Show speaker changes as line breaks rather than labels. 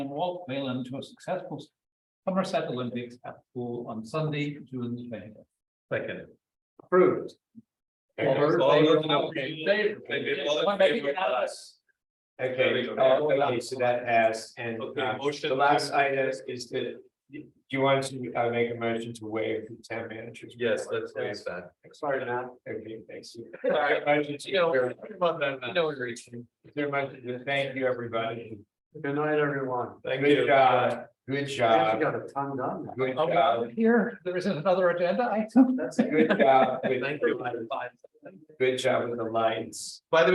Walt Whalen to a successful Somerset Olympics at pool on Sunday, June twenty.
Second.
Approved. All those in
Okay,
Wanna make it unanimous?
Okay,
There we
uh,
go.
okay, so that has, and uh,
motion.
the last item is that. Do you want to uh make a motion to waive the town manager's?
Yes, let's finish that.
Sorry, now. Okay, thanks. you.
Sorry.
Motion to-
You know, about that.
No, we're reaching. Is there a motion to Thank you, everybody.
Good night, everyone.
Thank
Good
you.
job, good
I
job,
got a ton done. now.
good
Oh, well,
job,
Here, there isn't another agenda item.
good job, good-
Thank you.
good job with the lights.
By the